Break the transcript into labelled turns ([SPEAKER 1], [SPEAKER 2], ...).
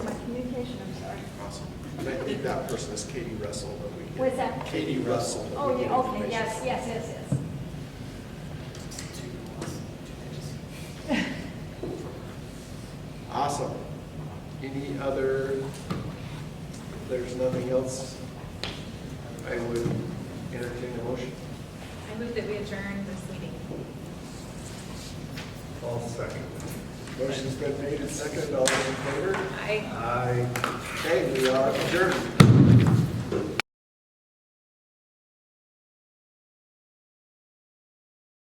[SPEAKER 1] think that person is Katie Russell, but we can.
[SPEAKER 2] What's that?
[SPEAKER 1] Katie Russell. but
[SPEAKER 2] Oh,
[SPEAKER 1] we
[SPEAKER 2] yeah,
[SPEAKER 1] can
[SPEAKER 2] okay,
[SPEAKER 1] information.
[SPEAKER 2] yes, yes, yes, yes.
[SPEAKER 1] Awesome. Any other, if there's nothing else, I would entertain a motion.
[SPEAKER 3] I move that we adjourn this meeting.
[SPEAKER 4] All second.
[SPEAKER 1] Motion's been made and seconded, all those in favor?
[SPEAKER 3] Aye.
[SPEAKER 4] Aye.
[SPEAKER 1] Okay, we are adjourned.